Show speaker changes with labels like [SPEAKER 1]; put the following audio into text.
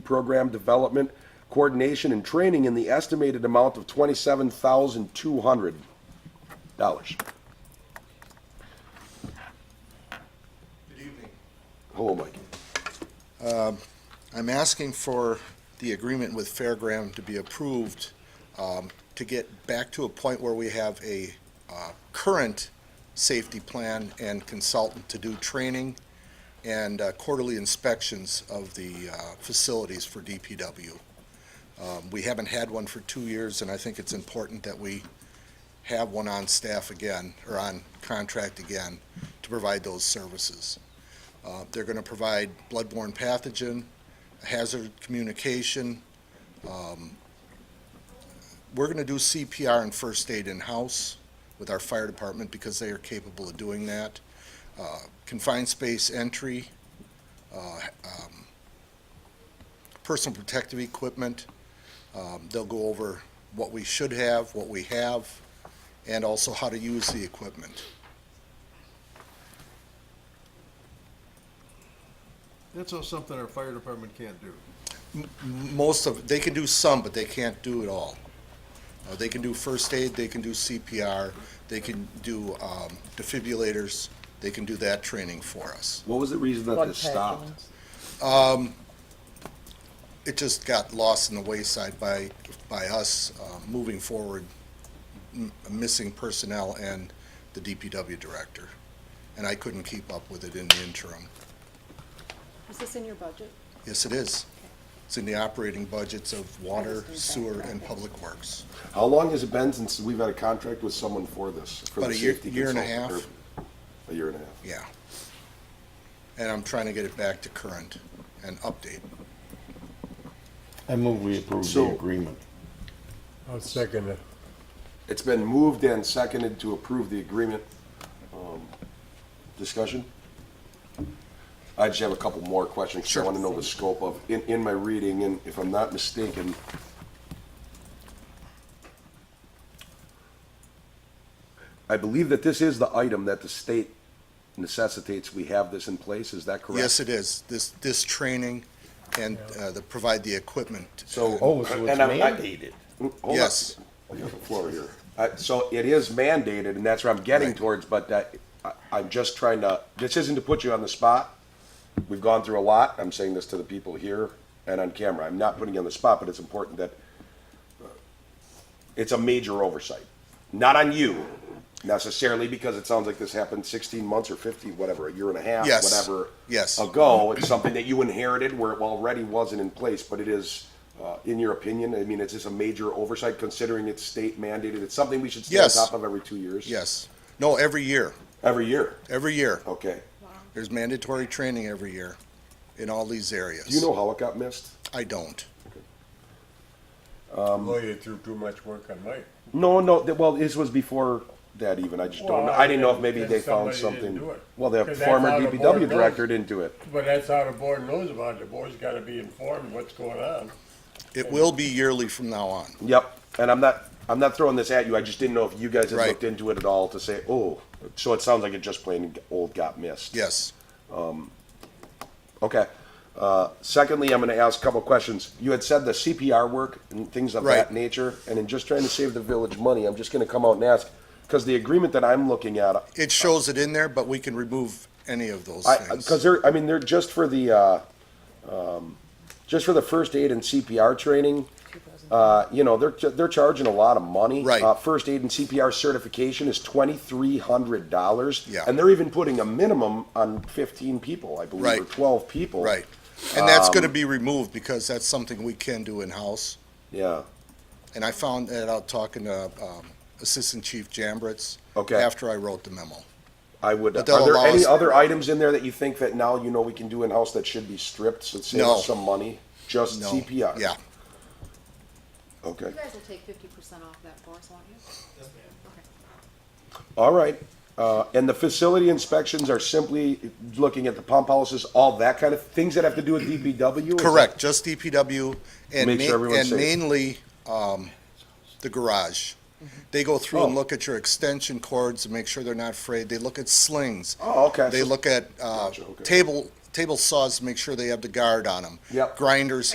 [SPEAKER 1] program development, coordination, and training in the estimated amount of twenty-seven thousand two hundred dollars.
[SPEAKER 2] Good evening.
[SPEAKER 1] Hello, Mike.
[SPEAKER 2] I'm asking for the agreement with Fairgram to be approved um, to get back to a point where we have a uh, current safety plan and consultant to do training and uh, quarterly inspections of the uh, facilities for DPW. Um, We haven't had one for two years, and I think it's important that we have one on staff again, or on contract again, to provide those services. Uh, They're going to provide bloodborne pathogen, hazard communication. um, We're going to do CPR and first aid in-house with our fire department because they are capable of doing that. Uh, Confined space entry, uh, um, personal protective equipment. Um, They'll go over what we should have, what we have, and also how to use the equipment.
[SPEAKER 3] That's all something our fire department can't do.
[SPEAKER 2] most of, they can do some, but they can't do it all. Uh, They can do first aid, they can do CPR, they can do um, defibrillators, they can do that training for us.
[SPEAKER 1] What was the reason that
[SPEAKER 4] Blood
[SPEAKER 1] this stopped?
[SPEAKER 4] pathogens.
[SPEAKER 2] It just got lost in the wayside by, by us uh, moving forward, m- missing personnel and the DPW director. And I couldn't keep up with it in the interim.
[SPEAKER 5] Is this in your budget?
[SPEAKER 2] Yes, it is. It's in the operating budgets of water,
[SPEAKER 5] just need that
[SPEAKER 2] sewer, and
[SPEAKER 5] graphic.
[SPEAKER 2] public works.
[SPEAKER 1] How long has it been since we've had a contract with someone for this? for the
[SPEAKER 2] About a year-
[SPEAKER 1] safety
[SPEAKER 2] year and a
[SPEAKER 1] consultant, or A year and a half.
[SPEAKER 2] Yeah. And I'm trying to get it back to current and update.
[SPEAKER 6] I move we approve the
[SPEAKER 1] So-
[SPEAKER 6] agreement.
[SPEAKER 7] I'll second it.
[SPEAKER 1] It's been moved and seconded to approve the agreement. Um, Discussion? I just have a couple more questions. 'cause I
[SPEAKER 2] Sure.
[SPEAKER 1] want to know the scope of, in, in my reading, and if I'm not mistaken, I believe that this is the item that the state necessitates we have this in place. Is that correct?
[SPEAKER 2] Yes, it is. This, this training and uh, the, provide the equipment.
[SPEAKER 1] So.
[SPEAKER 6] Oh, so it's
[SPEAKER 1] and I'm- I-
[SPEAKER 6] mandated.
[SPEAKER 1] Hold on.
[SPEAKER 2] Yes.
[SPEAKER 1] I got the floor here. I- Uh, So it is mandated, and that's where I'm getting
[SPEAKER 2] Right.
[SPEAKER 1] towards, but that, I, I'm just trying to, this isn't to put you on the spot. We've gone through a lot. I'm saying this to the people here and on camera. I'm not putting you on the spot, but it's important that uh, it's a major oversight. Not on you necessarily, because it sounds like this happened sixteen months or fifteen, whatever, a year and a half,
[SPEAKER 2] Yes.
[SPEAKER 1] whatever.
[SPEAKER 2] Yes.
[SPEAKER 1] Ago, it's something that you inherited where it already wasn't in place, but it is, uh, in your opinion, I mean, it's just a major oversight considering it's state mandated. It's something we should stay on
[SPEAKER 2] Yes.
[SPEAKER 1] top of every two years.
[SPEAKER 2] Yes. No, every year,
[SPEAKER 1] Every year.
[SPEAKER 2] every year.
[SPEAKER 1] Okay.
[SPEAKER 2] There's mandatory training every year in all these areas.
[SPEAKER 1] Do you know how it got missed?
[SPEAKER 2] I don't.
[SPEAKER 7] Well, you threw too much work on Mike.
[SPEAKER 1] No, no. th- Well, this was before that even. I just don't. know. I didn't know if maybe
[SPEAKER 7] Well,
[SPEAKER 1] they found
[SPEAKER 7] somebody
[SPEAKER 1] something.
[SPEAKER 7] didn't do it.
[SPEAKER 1] Well, the
[SPEAKER 7] 'Cause that's
[SPEAKER 1] former
[SPEAKER 7] how the
[SPEAKER 1] DPW
[SPEAKER 7] board
[SPEAKER 1] director
[SPEAKER 7] goes.
[SPEAKER 1] didn't do it.
[SPEAKER 7] But that's how the board knows about it. The board's gotta be informed what's going on.
[SPEAKER 2] It will be yearly from now on.
[SPEAKER 1] Yep. And I'm not. I'm not throwing this at you. I just didn't know if you guys had
[SPEAKER 2] Right.
[SPEAKER 1] looked into it at all to say, oh. So it sounds like it just plain old got missed.
[SPEAKER 2] Yes.
[SPEAKER 1] Okay. Uh, secondly, I'm going to ask a couple questions. You had said the CPR work and things of that
[SPEAKER 2] Right.
[SPEAKER 1] nature, and in just trying to save the village money, I'm just going to come out and ask because the agreement that I'm looking at,
[SPEAKER 2] It shows it in there, but we can remove any of those things.
[SPEAKER 1] because they're, I mean, they're just for the, uh, um, just for the first aid and CPR training. Uh, you know, they're they're charging a lot of money.
[SPEAKER 2] Right.
[SPEAKER 1] Uh, first aid and CPR certification is twenty three hundred dollars.
[SPEAKER 2] Yeah.
[SPEAKER 1] And they're even putting a minimum on fifteen people, I believe, or
[SPEAKER 2] Right.
[SPEAKER 1] twelve people.
[SPEAKER 2] Right. And that's
[SPEAKER 1] Um,
[SPEAKER 2] gonna be removed because that's something we can do in-house.
[SPEAKER 1] Yeah.
[SPEAKER 2] And I found that out talking to um, Assistant Chief Jambritz.
[SPEAKER 1] Okay.
[SPEAKER 2] After I wrote the memo.
[SPEAKER 1] I would. Are
[SPEAKER 2] But they'll
[SPEAKER 1] there
[SPEAKER 2] allow
[SPEAKER 1] any
[SPEAKER 2] us-
[SPEAKER 1] other items in there that you think that now you know we can do in house that should be stripped so it saves
[SPEAKER 2] No.
[SPEAKER 1] us some money? Just
[SPEAKER 2] No.
[SPEAKER 1] CPR.
[SPEAKER 2] Yeah.
[SPEAKER 1] Okay.
[SPEAKER 5] You guys will take fifty percent off that for us, won't you?
[SPEAKER 1] All right. Uh, and the facility inspections are simply looking at the pump houses, all that kind of things that have to do with DPW. is
[SPEAKER 2] Correct, just DPW and
[SPEAKER 1] Make sure
[SPEAKER 2] ma-
[SPEAKER 1] everyone's
[SPEAKER 2] and
[SPEAKER 1] safe.
[SPEAKER 2] mainly, um, the garage. They go through
[SPEAKER 1] Oh.
[SPEAKER 2] and look at your extension cords and make sure they're not frayed. They look at slings.
[SPEAKER 1] Oh, okay.
[SPEAKER 2] They look at, uh,
[SPEAKER 1] Gotcha, okay.
[SPEAKER 2] table, table saws to make sure they have the guard on them.
[SPEAKER 1] Yep.
[SPEAKER 2] Grinders